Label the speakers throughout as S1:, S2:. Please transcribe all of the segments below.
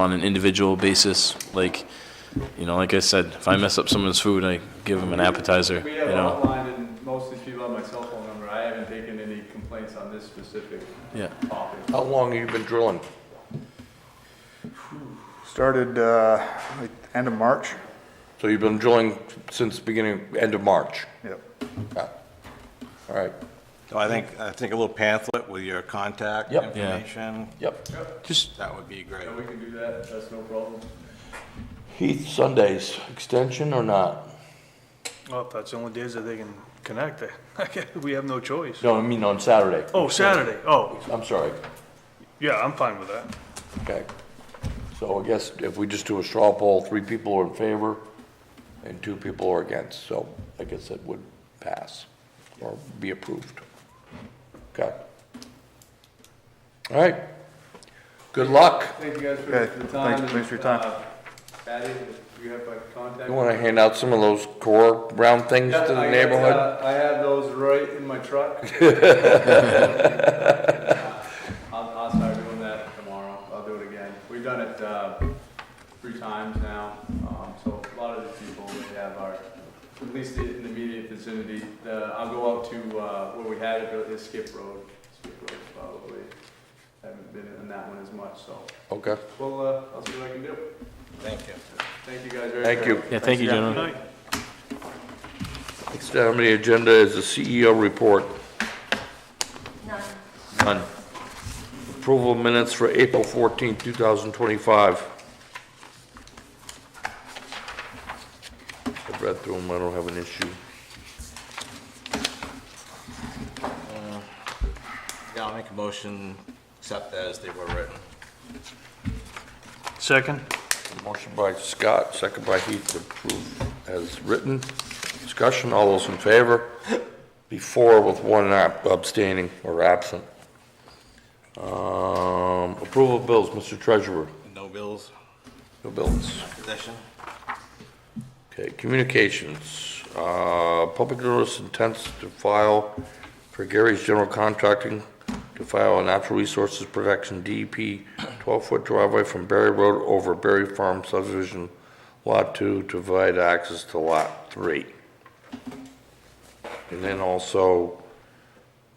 S1: on an individual basis, like, you know, like I said, if I mess up someone's food, I give them an appetizer,
S2: We
S1: you
S2: have
S1: know?
S2: online, and most of these people have my cell phone number. I haven't taken any complaints on this specific
S1: Yeah.
S2: topic.
S3: How long have you been drilling?
S4: Started, uh, like, end of March?
S3: So you've been drilling since beginning, end of March?
S4: Yep.
S3: Yeah. All right.
S5: So I think, I think a little pamphlet with your contact
S3: Yep.
S1: Yeah.
S5: information,
S3: Yep.
S1: Just,
S5: that would be great.
S2: So we can do that, that's no problem.
S3: Heath, Sundays, extension or not?
S6: Well, if that's the only days that they can connect, I- we have no choice.
S3: No, I mean on Saturday.
S6: Oh, Saturday, oh,
S3: I'm sorry.
S6: yeah, I'm fine with that.
S3: Okay. So I guess if we just do a straw poll, three people are in favor and two people are against, so I guess it would pass or be approved. Okay. All right. Good luck.
S2: Thank you guys for
S4: Okay,
S2: the time.
S4: thanks- thanks for your
S2: and,
S4: time.
S2: uh, Patty, if you have my contact.
S3: You want to hand out some of those core round things
S2: Yeah,
S3: to
S2: I
S3: the
S2: got,
S3: neighborhood?
S2: uh, I have those right in my truck. I'll, I'll start doing that tomorrow. I'll do it again. We've done it, uh, three times now. Um, so a lot of the people we have are, at least in the immediate vicinity. The, I'll go out to, uh, where we had it, is Skip Road. Skip Road probably. Haven't been in that one as much, so.
S3: Okay.
S2: Well, uh, I'll see what I can do.
S5: Thank you.
S2: Thank you guys very much.
S3: Thank you.
S1: yeah, thank you,
S6: Good
S1: gentlemen.
S6: night.
S3: Next item on the agenda is the CEO report. None. None. Approval minutes for April 14, 2025. I've read through them, I don't have an issue.
S5: Yeah, I'll make a motion, accept as they were written.
S6: Second?
S3: Motion by Scott, second by Heath to approve as written. Discussion, all those in favor? Before with one ab- abstaining or absent. Um, Approval of bills, Mr. Treasurer,
S5: No bills,
S3: no bills.
S5: possession?
S3: Okay, communications, uh, public notice intends to file for Gary's General Contracting to file a natural resources protection DEP 12-foot driveway from Berry Road over Berry Farm subdivision Lot 2 to provide access to Lot 3. And then also,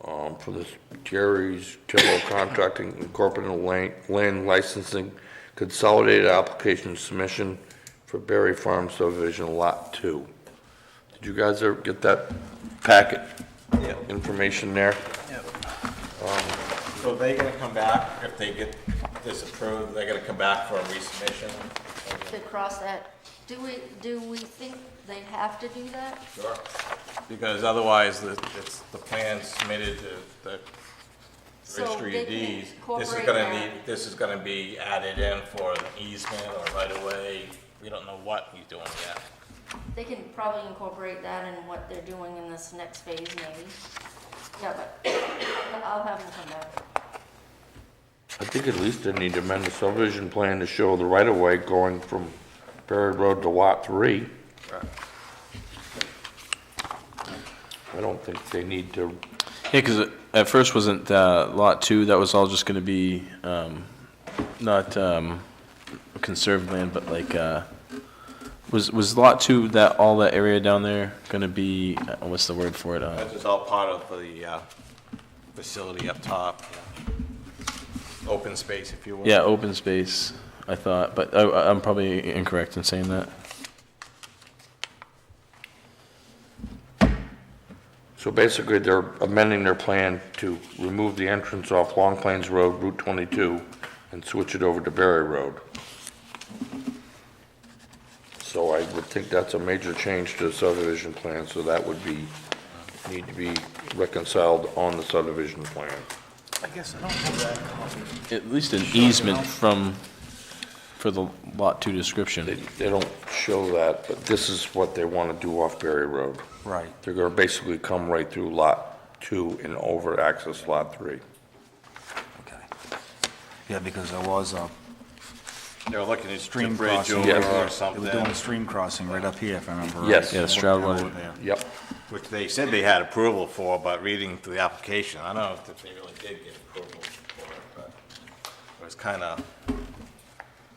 S3: um, for this Gary's General Contracting Incorporated Land- Land Licensing Consolidated Application Submission for Berry Farm subdivision Lot 2. Did you guys ever get that packet?
S5: Yep.
S3: Information there?
S5: So they gonna come back, if they get this approved, they're gonna come back for a resubmission?
S7: to cross that. Do we, do we think they have to do that?
S5: Sure. Because otherwise, the- it's the plan submitted to the
S7: So
S5: registry
S7: they
S5: of
S7: can
S5: deeds. This is
S7: incorporate
S5: gonna
S7: that.
S5: need, this is gonna be added in for an easement or right away. We don't know what he's doing yet.
S7: They can probably incorporate that in what they're doing in this next phase, maybe. Yeah, but I'll have them come back.
S3: I think at least they need to amend the subdivision plan to show the right-of-way going from Berry Road to Lot 3. I don't think they need to,
S1: Yeah, because at first wasn't, uh, lot two, that was all just gonna be, um, not, um, conserved land, but like, uh, was, was lot two, that, all that area down there gonna be, uh, what's the word for it? Uh,
S5: This is all part of the uh, facility up top. Open space, if you will.
S1: Yeah, open space, I thought, but I, I'm probably incorrect in saying that.
S3: so basically they're amending their plan to remove the entrance off Long Plains Road, Route 22, and switch it over to Berry Road. So I would think that's a major change to the subdivision plan, so that would be, need to be reconciled on the subdivision plan.
S6: I guess I don't have that copy.
S1: At least an easement from, for the lot two
S3: They,
S1: description.
S3: they don't show that, but this is what they want to do off Berry Road.
S1: Right.
S3: They're gonna basically come right through Lot 2 and over access Lot 3.
S8: Okay. Yeah, because there was a,
S5: They were looking at
S8: Stream
S5: stream bridge
S8: crossing.
S5: over
S3: Yeah.
S5: or
S8: they were doing
S5: something,
S8: a stream crossing right up here, if I remember right.
S3: Yes. Yeah,
S1: Stroud Lane.
S8: Yeah.
S3: Yep.
S5: which they said they had approval for, but reading through the application, I don't know if they really did get approval for it, but it was kind of